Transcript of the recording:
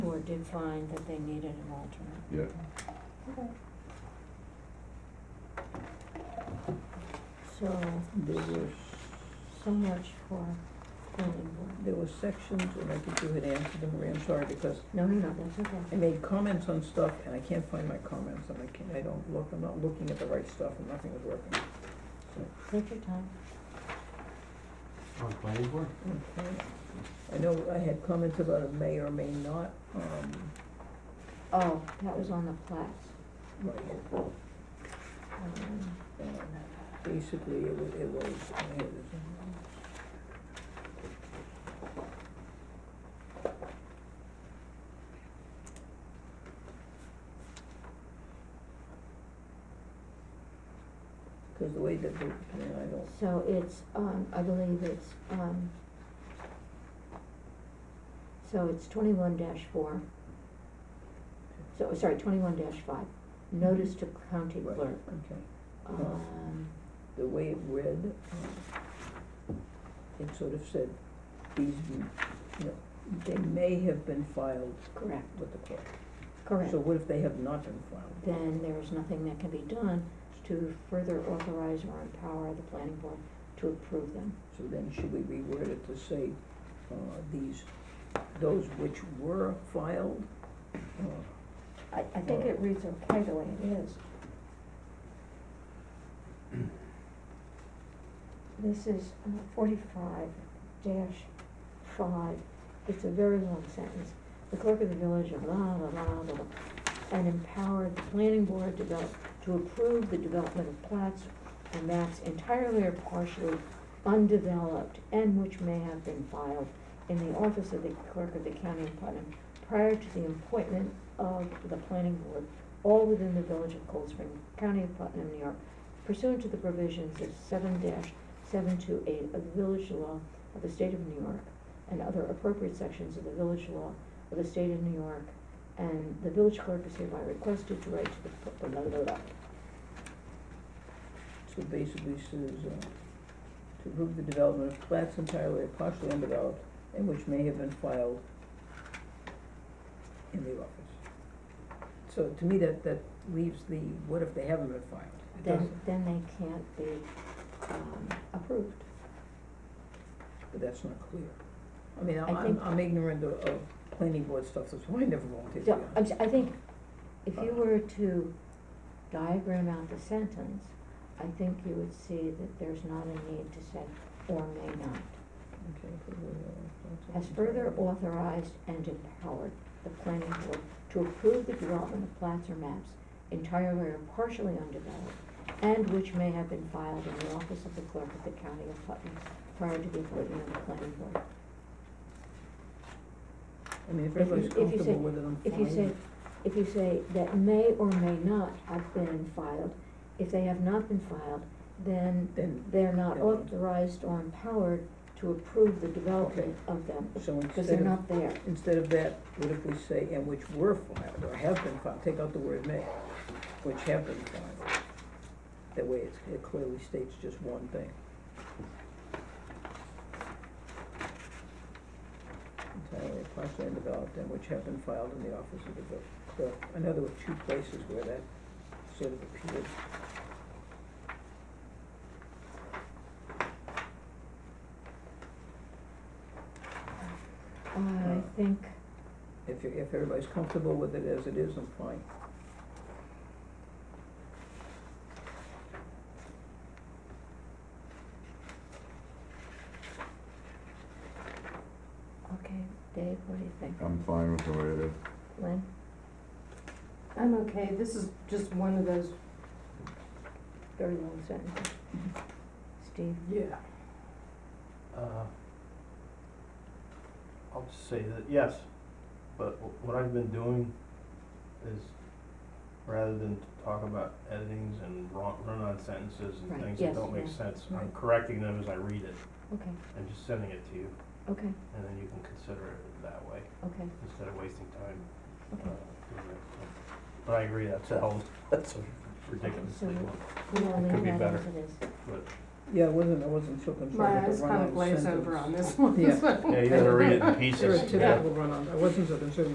did find that they needed an alternate. yeah. So, There were, so much for planning board. there were sections, and I think you had answered them, Maria, I'm sorry, because No, no, no, that's okay. I made comments on stuff, and I can't find my comments, and I can't, I don't look, I'm not looking at the right stuff, and nothing is working. So, Take your time. On planning board? Okay. I know I had comments about it may or may not, um, Oh, that was on the plats. right, Um, Um, Basically, it was, it was, I had this. Cause the way that the, yeah, I don't, So it's, um, I believe it's, um, so it's twenty-one dash four. So, sorry, twenty-one dash five, notice to county Right. clerk. okay, Um, the way it read, um, it sort of said, these, be- you know, they may have been filed correct, with the clerk. correct. So what if they have not been filed? Then there is nothing that can be done to further authorize or empower the planning board to approve them. So then should we reword it to say, uh, these, those which were filed? uh, I, I think it reads okay the way it is. This is uh, forty-five dash five, it's a very long sentence. The clerk of the village of la, la, la, la, la, and empowered the planning board to develop, to approve the development of plats and maps entirely or partially undeveloped and which may have been filed in the office of the clerk of the county of Putnam prior to the appointment of the planning board, all within the village of Cold Spring, County of Putnam, New York, pursuant to the provisions of seven seven two eight of the village law of the state of New York and other appropriate sections of the village law of the state of New York, and the village clerk is hereby requested to write to the, pu- blah, blah, blah. So basically says, uh, to approve the development of plats entirely or partially undeveloped and which may have been filed in the office. So to me, that, that leaves the, what if they haven't been filed? It doesn't- then, then they can't be, um, approved. But that's not clear. I mean, I I'm, think- I'm ignorant of, of planning board stuff, that's why I never volunteered to be So, on it. I'm, si think if you were to diagram out the sentence, I think you would see that there's not a need to say or may not. Okay, for the, uh, Has further authorized and empowered the planning board to approve the development of plats or maps entirely or partially undeveloped and which may have been filed in the office of the clerk of the county of Putnam prior to the appointment of the planning board. I mean, if If you- everybody's if you say- comfortable with it, I'm fine. If you say, if you say that may or may not have been filed, if they have not been filed, then Then, they're not Yeah. authorized or empowered to approve the development of them, so because they're instead of, not there. instead of that, what if we say, and which were filed, or have been filed, take out the word may, which have been filed. That way, it's, it clearly states just one thing. Entirely partially undeveloped, and which have been filed in the office of the bill- clerk. I know there were two places where that sort of appeared. I think, If, you- if everybody's comfortable with it as it is, I'm fine. okay, Dave, what do you think? Oh. I'm fine with the way it is. Lynn? I'm okay, this is just one of those, Very long sentence. Steve? Yeah. Uh, I'll just say that, yes, but wh- what I've been doing is, rather than t- talk about editings and wrong, run-on sentences Right, and things yes, that don't make yeah. sense, I'm Right. correcting them as I read it Okay, and just sending it to you, okay, and then you can consider it that way, okay, instead of wasting time. uh, okay. doing it. So- But I agree, that's a hell, that's a ridiculously so- long, We'll It could leave be that better. as it is. but, Yeah, I wasn't, I wasn't so concerned my with eyes the run-on kind of sentence. glaze over on this one, Yeah. so. yeah, you gotta read it in There are pieces. typical run-on, I wasn't so concerned